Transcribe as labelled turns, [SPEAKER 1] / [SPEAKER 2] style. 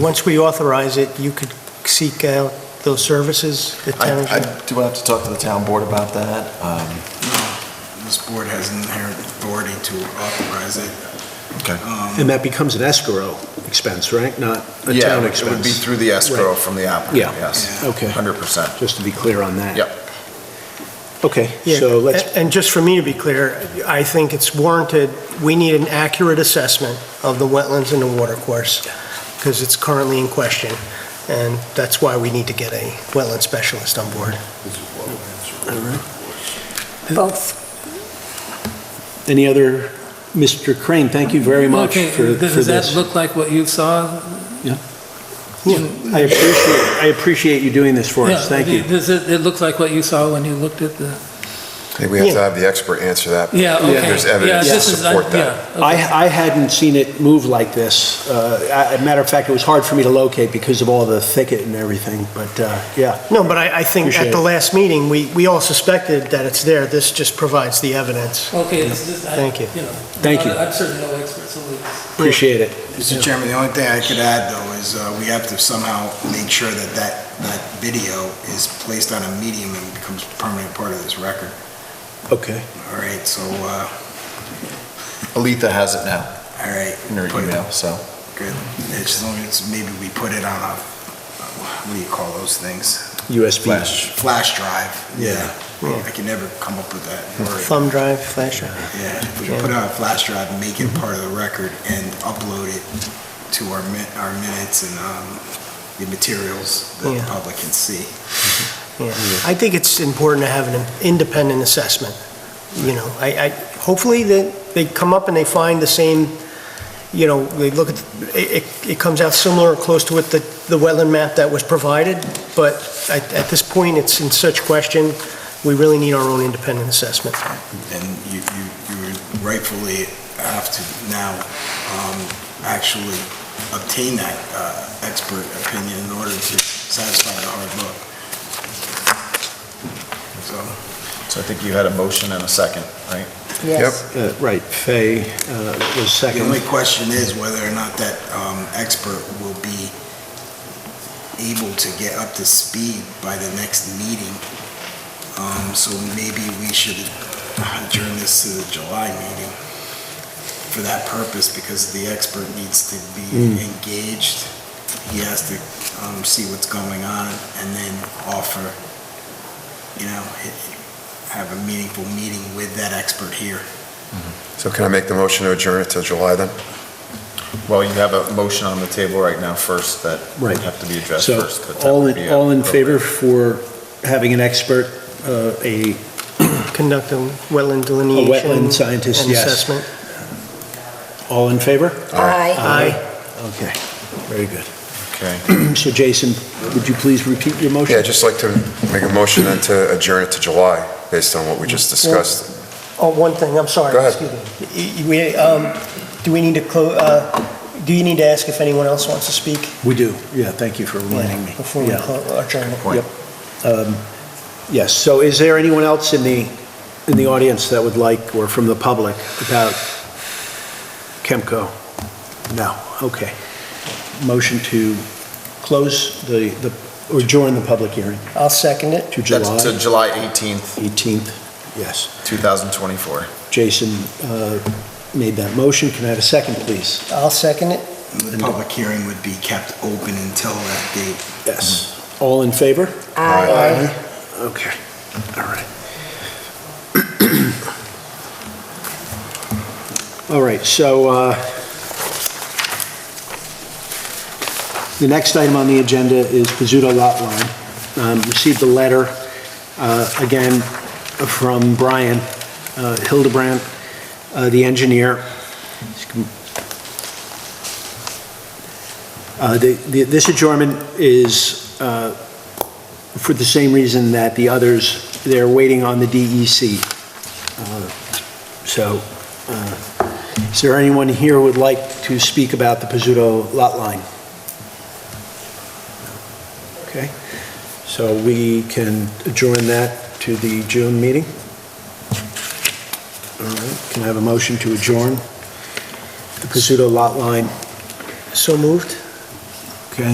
[SPEAKER 1] Once we authorize it, you could seek out those services, the
[SPEAKER 2] I,
[SPEAKER 1] town...
[SPEAKER 2] I do have to talk to the town board about that.
[SPEAKER 3] Uh,
[SPEAKER 2] Um,
[SPEAKER 4] This board has an inherent authority to authorize it.
[SPEAKER 2] Okay.
[SPEAKER 4] Um,
[SPEAKER 5] And that becomes an escrow expense, right? Not a
[SPEAKER 2] Yeah,
[SPEAKER 5] town
[SPEAKER 2] it would be
[SPEAKER 5] expense?
[SPEAKER 2] through the escrow
[SPEAKER 5] Right.
[SPEAKER 2] from the applicant,
[SPEAKER 5] Yeah.
[SPEAKER 2] yes.
[SPEAKER 5] Okay,
[SPEAKER 2] 100%.
[SPEAKER 5] just to be clear on that.
[SPEAKER 2] Yep.
[SPEAKER 5] Okay,
[SPEAKER 1] Yeah,
[SPEAKER 5] so
[SPEAKER 6] uh,
[SPEAKER 5] let's,
[SPEAKER 1] a- And just for me to be clear, I think it's warranted, we need an accurate assessment of the wetlands and the watercourse, because it's currently in question, and that's why we need to get a wetland specialist on board.
[SPEAKER 7] Both.
[SPEAKER 5] any other, Mr. Crane, thank you very much
[SPEAKER 6] Okay,
[SPEAKER 5] for for this.
[SPEAKER 6] Does that look like what you saw?
[SPEAKER 5] Yeah. I appreciate, I appreciate you doing this for us,
[SPEAKER 6] Yeah,
[SPEAKER 5] thank you.
[SPEAKER 6] Does it, it look like what you saw when you looked at the,
[SPEAKER 3] I think we have to have the expert answer that.
[SPEAKER 6] yeah, okay.
[SPEAKER 3] There's
[SPEAKER 6] Yeah,
[SPEAKER 3] evidence to
[SPEAKER 6] this
[SPEAKER 5] uh,
[SPEAKER 6] is- I-
[SPEAKER 3] support that.
[SPEAKER 6] yeah, okay.
[SPEAKER 5] I, I hadn't seen it move like this. Uh, I- a matter of fact, it was hard for me to locate because of all the thicket and everything, but, uh, yeah.
[SPEAKER 1] No, but I, I think at
[SPEAKER 5] Appreciate
[SPEAKER 1] the
[SPEAKER 5] it.
[SPEAKER 1] last meeting, we, we all suspected that it's there, this just provides the evidence.
[SPEAKER 6] Okay, this is. I-
[SPEAKER 1] Thank you.
[SPEAKER 6] know,
[SPEAKER 5] Thank you.
[SPEAKER 6] I'm certainly no expert, so it's-
[SPEAKER 5] Appreciate it.
[SPEAKER 4] Mr. Chairman, the only thing I could add, though, is uh, we have to somehow make sure that that, that video is placed on a medium and becomes permanent part of this record.
[SPEAKER 5] Okay.
[SPEAKER 4] All right, so, uh,
[SPEAKER 2] Alita has it now
[SPEAKER 4] all right.
[SPEAKER 2] in her
[SPEAKER 4] put it-
[SPEAKER 2] email, so.
[SPEAKER 4] Good. As long as maybe we put it on a, what do you call those things?
[SPEAKER 5] USB.
[SPEAKER 4] Flash drive.
[SPEAKER 5] Yeah.
[SPEAKER 4] I can never come up with that word.
[SPEAKER 1] Thumb drive, flash drive.
[SPEAKER 4] Yeah, if we put it on a flash drive and make it part of the record and upload it to our min, our minutes and, um, the materials that the
[SPEAKER 1] Yeah.
[SPEAKER 4] public can see.
[SPEAKER 1] Yeah. I think it's important to have an independent assessment, you know, I, I, hopefully they, they come up and they find the same, you know, they look at, it, it- it comes out similar or close to what the, the wetland map that was provided, but at, at this point, it's in such question, we really need our own independent assessment.
[SPEAKER 4] And you, you, you rightfully have to now, um, actually obtain that, uh, expert opinion in order to satisfy the hard look. So,
[SPEAKER 2] So I think you had a motion and a second, right?
[SPEAKER 7] Yes.
[SPEAKER 5] Uh, Right, Fay uh, was
[SPEAKER 4] the only
[SPEAKER 5] second.
[SPEAKER 4] question is whether or not that, um, expert will be able to get up to speed by the next meeting. Um, so maybe we should adjourn this to the July meeting for that purpose, because the expert needs to be engaged. He has to, um, see what's going on and then offer, you know, h- have a meaningful meeting with that expert here.
[SPEAKER 3] So can I make the motion to adjourn it till July then?
[SPEAKER 2] Well, you have a motion on the table right now first that would
[SPEAKER 5] Right.
[SPEAKER 2] have to be addressed
[SPEAKER 5] So
[SPEAKER 2] first. but that
[SPEAKER 5] all,
[SPEAKER 2] would be
[SPEAKER 5] in- all in favor
[SPEAKER 2] appropriate.
[SPEAKER 5] for having an expert, uh, a,
[SPEAKER 1] Conduct a wetland delineation.
[SPEAKER 5] scientist,
[SPEAKER 1] and
[SPEAKER 5] yes.
[SPEAKER 1] assessment.
[SPEAKER 5] all in favor?
[SPEAKER 3] Oh,
[SPEAKER 7] Aye.
[SPEAKER 1] Aye.
[SPEAKER 5] Okay, very good.
[SPEAKER 2] Okay.
[SPEAKER 5] So Jason, would you please repeat your motion?
[SPEAKER 3] Yeah, I'd just like to make a motion then to adjourn it to July, based on what we just discussed.
[SPEAKER 1] Oh, one thing, I'm sorry.
[SPEAKER 3] Go ahead.
[SPEAKER 1] Excuse me. Y- y- We, um, do we need to close, uh, do you need to ask if anyone else wants to speak?
[SPEAKER 5] We do, yeah, thank you for reminding me.
[SPEAKER 1] Before we
[SPEAKER 5] Yeah.
[SPEAKER 1] clo- adjourn the
[SPEAKER 5] Yep. Um, Yes, so is there anyone else in the, in the audience that would like, or from the public, about Kemco? No, okay. Motion to close the, the or adjourn the public hearing
[SPEAKER 1] I'll second it.
[SPEAKER 5] to
[SPEAKER 2] That's to
[SPEAKER 5] July
[SPEAKER 2] July 18th,
[SPEAKER 5] 18th. Yes,
[SPEAKER 2] 2024.
[SPEAKER 5] Jason uh, made that motion, can I have a second, please?
[SPEAKER 1] I'll second it.
[SPEAKER 4] The public hearing would be kept open until that date.
[SPEAKER 5] Yes. All in favor?
[SPEAKER 7] Aye.
[SPEAKER 5] Okay, all right. All right, so uh, the next item on the agenda is Pizzuto Lot Line. Um, Received a letter, uh, again, from Brian uh, Hildebrand, uh, the engineer. Uh, the- the- This adjournment is uh, for the same reason that the others, they're waiting on the DEC. Uh, So, uh, is there anyone here who would like to speak about the Pizzuto lot line? Okay, so we can adjourn that to the June meeting? All right, can I have a motion to adjourn the Pizzuto lot line?
[SPEAKER 1] So moved?